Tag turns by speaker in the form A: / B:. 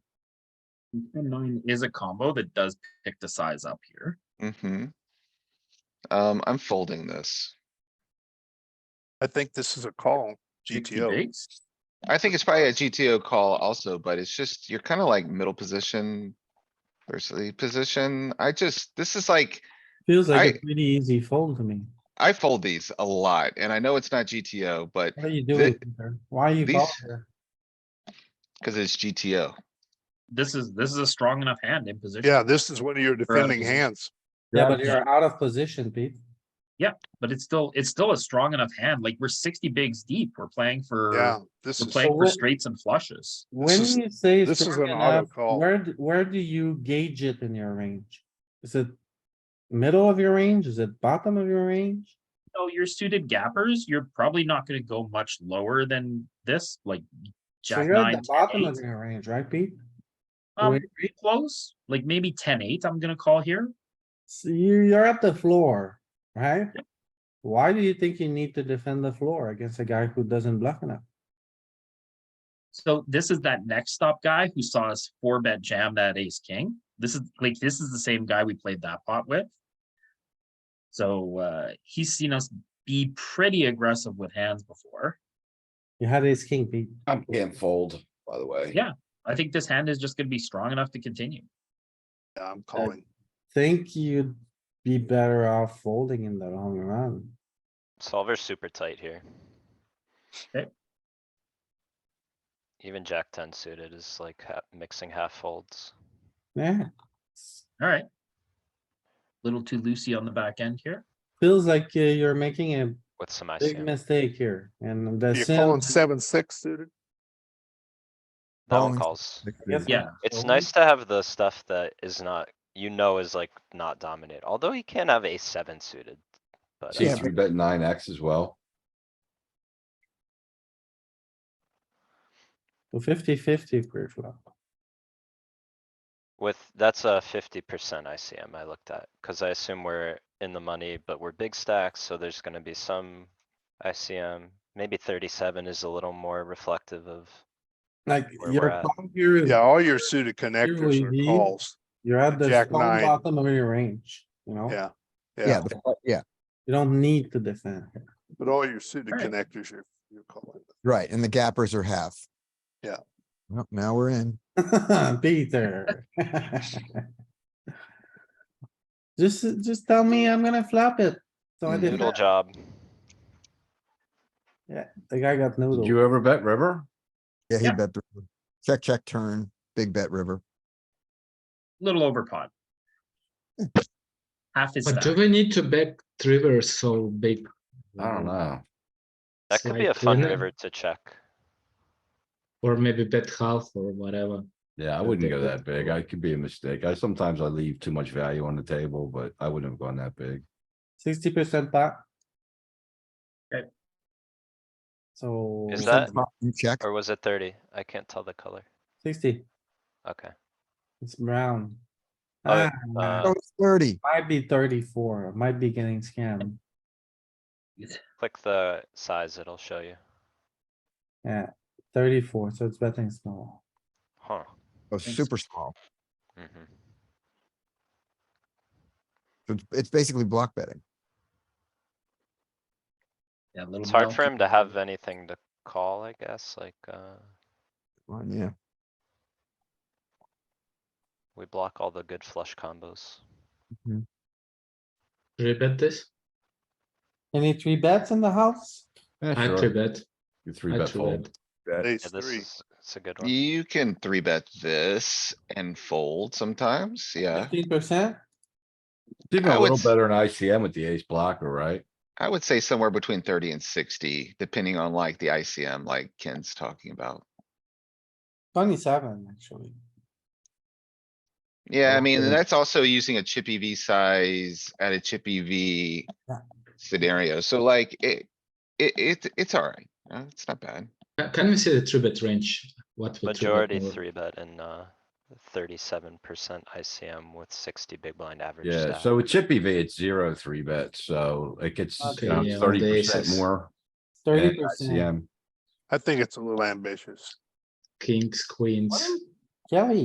A: And nine is a combo that does pick the size up here.
B: Mm-hmm. Um, I'm folding this.
C: I think this is a call,
A: 60
C: GTO.
A: bigs.
B: I think it's probably a GTO call also, but it's just, you're kinda like middle position. Versus lead position. I just, this is like,
D: Feels like
B: I-
D: a pretty easy fold to me.
B: I fold these a lot and I know it's not GTO, but,
D: What are you doing? here? Why are you
B: these-
D: calling here?
B: cause it's GTO.
A: This is, this is a strong enough hand in
E: eh?
A: position.
C: Yeah, this is one of your defending
A: position.
C: hands.
D: Yeah, but you're out of position, Pete.
A: But it's still, it's still a strong enough hand. Like we're sixty bigs deep. We're playing for,
C: Yeah, this
A: we're
C: is,
A: playing for
D: Well,
A: straights and flushes.
D: When
C: is-
D: you say
C: this is
D: strong
C: an auto
D: enough,
C: call.
D: where, d- where do you gauge it in your range? Is it middle of your range? Is it bottom of your range?
A: So your suited gappers, you're probably not gonna go much lower than this, like
D: So
A: jack
D: you're at
A: nine,
D: the bottom
A: 10,
D: of
A: eight.
D: your range, right, Pete?
A: Um,
D: Wait,
A: pretty close, like maybe 10-8 eight, I'm gonna call here.
D: So you, you're at the floor, right? Why do you think you need to defend the floor against a guy who doesn't bluff enough?
A: So this is that next stop guy who saw us four bet jam that ace king. This is like this is the same guy we played that pot with. So uh he's seen us be pretty aggressive with hands before.
D: You had ace king, Pete.
F: I'm can't fold, by the way.
A: Yeah. I think this hand is just gonna be strong enough to continue.
C: yeah, I'm calling.
D: Think you'd be better off folding in the long run.
E: Solver's super tight here.
A: Okay.
E: Even jack ten suited is like ha- mixing half folds.
D: Yeah,
A: All right. Little too loosey on the back end here.
D: feels like uh, you're making a
E: With some
D: big
E: ICM.
D: mistake here and the
C: You're calling
D: sim.
C: seven, six suited?
E: That one calls.
D: Yes,
A: Yeah.
E: It's
D: folding.
E: nice to have the stuff that is not, you know, is like not dominant, although he can have a seven suited. But
F: See
E: uh,
F: three bet nine X as well.
D: Fifty fifty pre-flop.
E: with, that's a fifty percent ICM I looked at, cuz I assume we're in the money, but we're big stacks, so there's gonna be some ICM. Maybe thirty-seven is a little more reflective of,
D: Like
E: Where we're
D: your
E: at.
D: call here is,
C: Yeah, all your suited connectors
D: we need-
C: are calls.
D: you're at the
C: Jack
D: strong
C: nine.
D: bottom of your range, you know?
C: Yeah,
G: Oh. Yeah,
C: yeah,
G: the fl- yeah,
D: You don't need to defend. here.
C: but all your suited
A: Alright.
C: connectors are, you're calling.
G: right, and the gappers are half.
C: Yeah.
G: Well, now we're in.
D: Peter. Just, just tell me I'm gonna flop it. So I did,
E: Mm, noodle job.
D: the guy got
F: Did
D: noodle.
F: you ever bet river?
G: Yeah, he
A: Yeah.
G: bet, the river. check, check, turn, big bet river.
A: Little over pot. Half his
H: But do
A: stack.
H: we need to back river so big?
F: I
H: Mm-hmm.
F: don't know.
E: That
H: It's
E: could be a
H: like
E: fun
H: winner.
E: river to check.
H: Or maybe bet half or whatever.
F: Yeah, I wouldn't go that big. I could be a mistake. I sometimes I leave too much value on the table, but I wouldn't have gone that big.
D: Sixty percent pot.
A: Okay.
D: So.
E: Is that-
G: You check,
E: Or was it thirty? I can't tell the color.
D: Sixty,
E: Okay.
D: it's brown.
E: Oh,
D: Ah,
E: uh,
G: oh, it's thirty.
D: Might be thirty-four, might be getting scammed.
E: Click the size, it'll show you.
D: Yeah, thirty-four, so it's betting small.
E: Huh.
G: Oh,
A: Thanks.
G: super small.
E: mhm.
G: So It's, it's basically block betting.
A: Yeah, a little
E: It's hard for
A: milky.
E: him to have anything to call, I guess, like, uh,
G: Well, yeah.
E: we block all the good flush combos.
H: Three bet this?
D: Any three bets in the house?
F: Yeah,
H: I
F: sure.
H: three bet.
F: You three
H: I
F: bet
H: three bet.
F: fold.
C: Ace
E: Yeah, this
C: three.
E: is, it's a good one.
B: You can three bet this and fold sometimes, yeah.
D: Fifteen percent?
F: Did
B: I
F: a
B: would
F: little
B: s-
F: better in ICM with the ace blocker, right?
B: I would say somewhere between thirty and sixty, depending on like the ICM like Ken's talking about.
D: Twenty-seven, actually.
B: Yeah, I mean,
D: Okay.
B: and that's also using a chippy V size at a chippy V
D: Yeah.
B: scenario. So like it, it, it, it's alright. Uh, It's not bad.
H: Ca- Can we see the three bet range? What? we three bet
E: Majority
H: more?
E: three bet and, uh, thirty-seven percent ICM with sixty big blind average
F: Yeah,
E: stack.
F: so with chippy V, it's zero three bets, so it gets
D: Okay,
H: yeah, on the
F: thirty percent
H: aces.
F: more.
D: Thirty
F: in
D: percent.
F: ICM.
C: I think it's a little ambitious.
H: Kings,
D: What
H: queens.
D: am- Kelly,